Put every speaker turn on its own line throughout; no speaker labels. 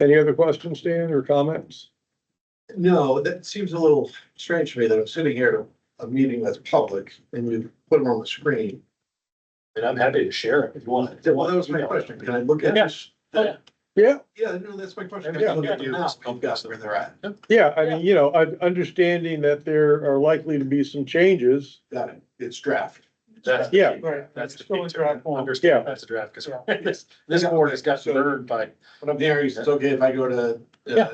Any other questions, Dan, or comments?
No, that seems a little strange to me that I'm sitting here at a meeting that's public and you put them on the screen.
And I'm happy to share it if you want.
Well, that was my question. Can I look at this?
Yeah.
Yeah.
Yeah, no, that's my question.
Yeah.
Look at the map, I've got where they're at.
Yeah, I mean, you know, I, understanding that there are likely to be some changes.
Got it. It's draft.
That's.
Yeah.
Right.
That's the
Still
key
in
to
draft
it.
form.
Yeah.
understand, that's a draft, because this, this board has got burned by,
What I'm hearing is it's okay if I go to, uh,
Yeah.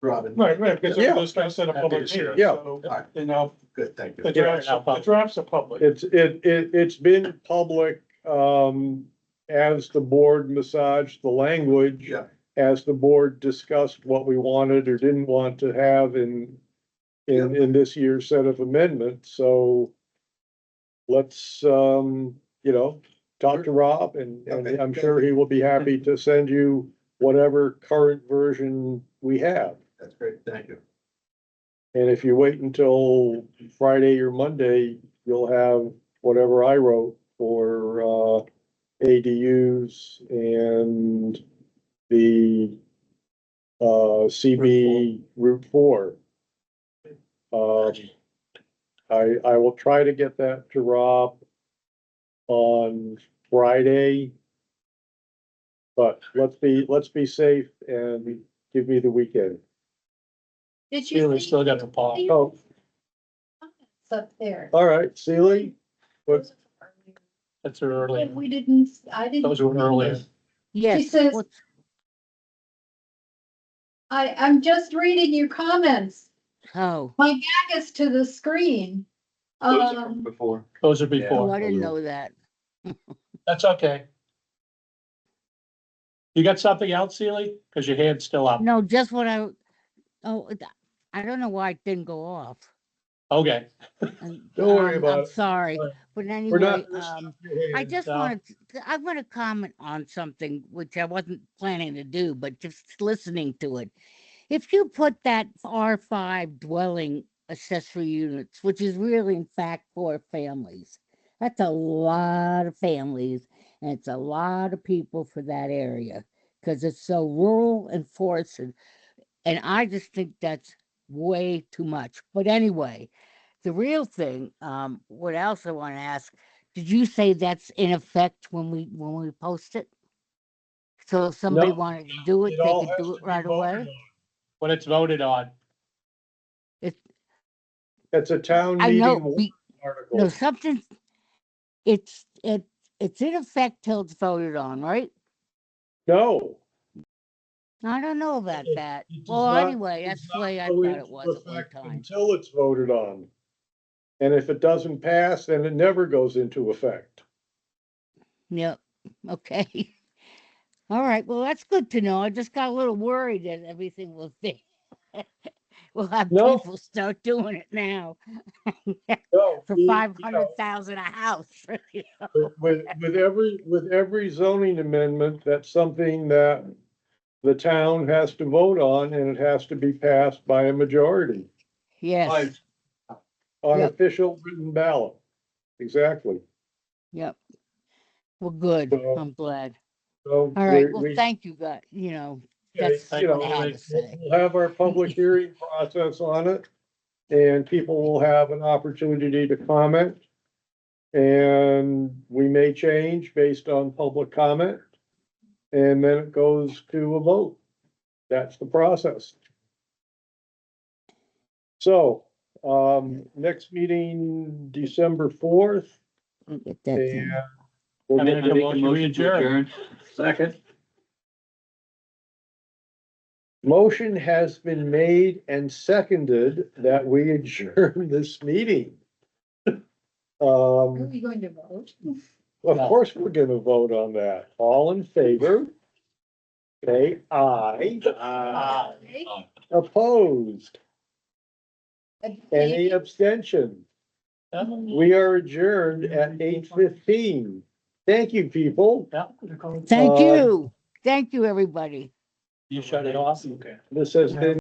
Robin.
Right, right, because
Yeah.
it was not set up
Happy to
public
share
meeting,
it.
Yeah.
so,
Alright.
you know,
Good, thank you.
the
Yeah,
drafts,
now
the
public.
drafts are public.
It's, it, it, it's been public, um, as the board massaged the language.
Yeah.
As the board discussed what we wanted or didn't want to have in, in, in this year's set of amendments, so. Let's, um, you know, talk to Rob and, and
Okay.
I'm sure he will be happy to send you whatever current version we have.
That's great. Thank you.
And if you wait until Friday or Monday, you'll have whatever I wrote for, uh, ADUs and the, uh, CB Route Four. Um, I, I will try to get that to Rob on Friday. But let's be, let's be safe and give me the weekend.
Did
Yeah, we
you
still
see
got the pause.
Oh,
it's up there?
Oh,
All right, Sealy? what-
That's an
Yeah,
early,
We didn't, I didn't.
those were earlier.
She
Yes.
says. I, I'm just reading your comments.
Oh,
Back us to the screen. Um,
Before.
Those are
oh,
before.
I didn't know that.
That's okay. You got something else, Sealy? Because your hand's still up.
No, just what I, oh, it- I don't know why it didn't go off.
Okay.
Don't
Don't worry about it.
Sorry,
All right.
but
We're not-
anyway, um, I just
uh,
wanted, to- I want to comment on something which I wasn't planning to do, but just listening to it. If you put that R five dwelling accessory units, which is really in fact four families, that's a lot of families and it's a lot of people for that area because it's so rural and forested. And I just think that's way too much. But anyway, the real thing, um, what else I want to ask, did you say that's in effect when we, when we post it? So if somebody
No,
wanted to do it,
It
they
all
could
has
do
to
it
be
right
voted
away?
on. When it's voted on,
It's a town
I
meeting
know,
warrant
we, no,
article.
something, it's, it, it's in effect till it's voted on, right?
No,
I don't know about
It-
that.
it does
Well,
not-
anyway,
it
that's
does
the way I
go
thought it
into
was at one
effect
time.
Until it's voted on. And if it doesn't pass, then it never goes into effect.
Yep, okay. All right, well, that's good to know. I just got a little worried that everything will be. We'll have
No.
people start doing it now
No.
for
we- you know,
five hundred thousand a house.
With, with- with every, with every zoning amendment, that's something that the town has to vote on and it has to be passed by a majority
Yes,
on
Yep.
official written ballot. Exactly.
yep. Well, good.
So-
I'm glad.
So.
All right,
we-
well,
we-
thank you, guys, you know,
Yeah,
That's
you know,
what I had to say.
We'll have our public hearing process on it, and people will have an opportunity to comment. And we may change based on public comment, and then it goes to a vote. That's the process. So, um, next meeting, December fourth,
I'll get that.
and.
done.
we'll
I
get-
make a motion, we adjourn.
Second.
Motion has been made and seconded that we adjourn this meeting.
are
Um,
we going to vote?
of course, we're gonna vote on that. All in favor? Say aye.
Uh,
Okay.
Opposed? Any
Okay.
abstention?
yeah,
We are adjourned at eight fifteen. Thank you, people.
yeah.
uh,
Thank you. Thank you, everybody.
You shut it off? Okay.
This has been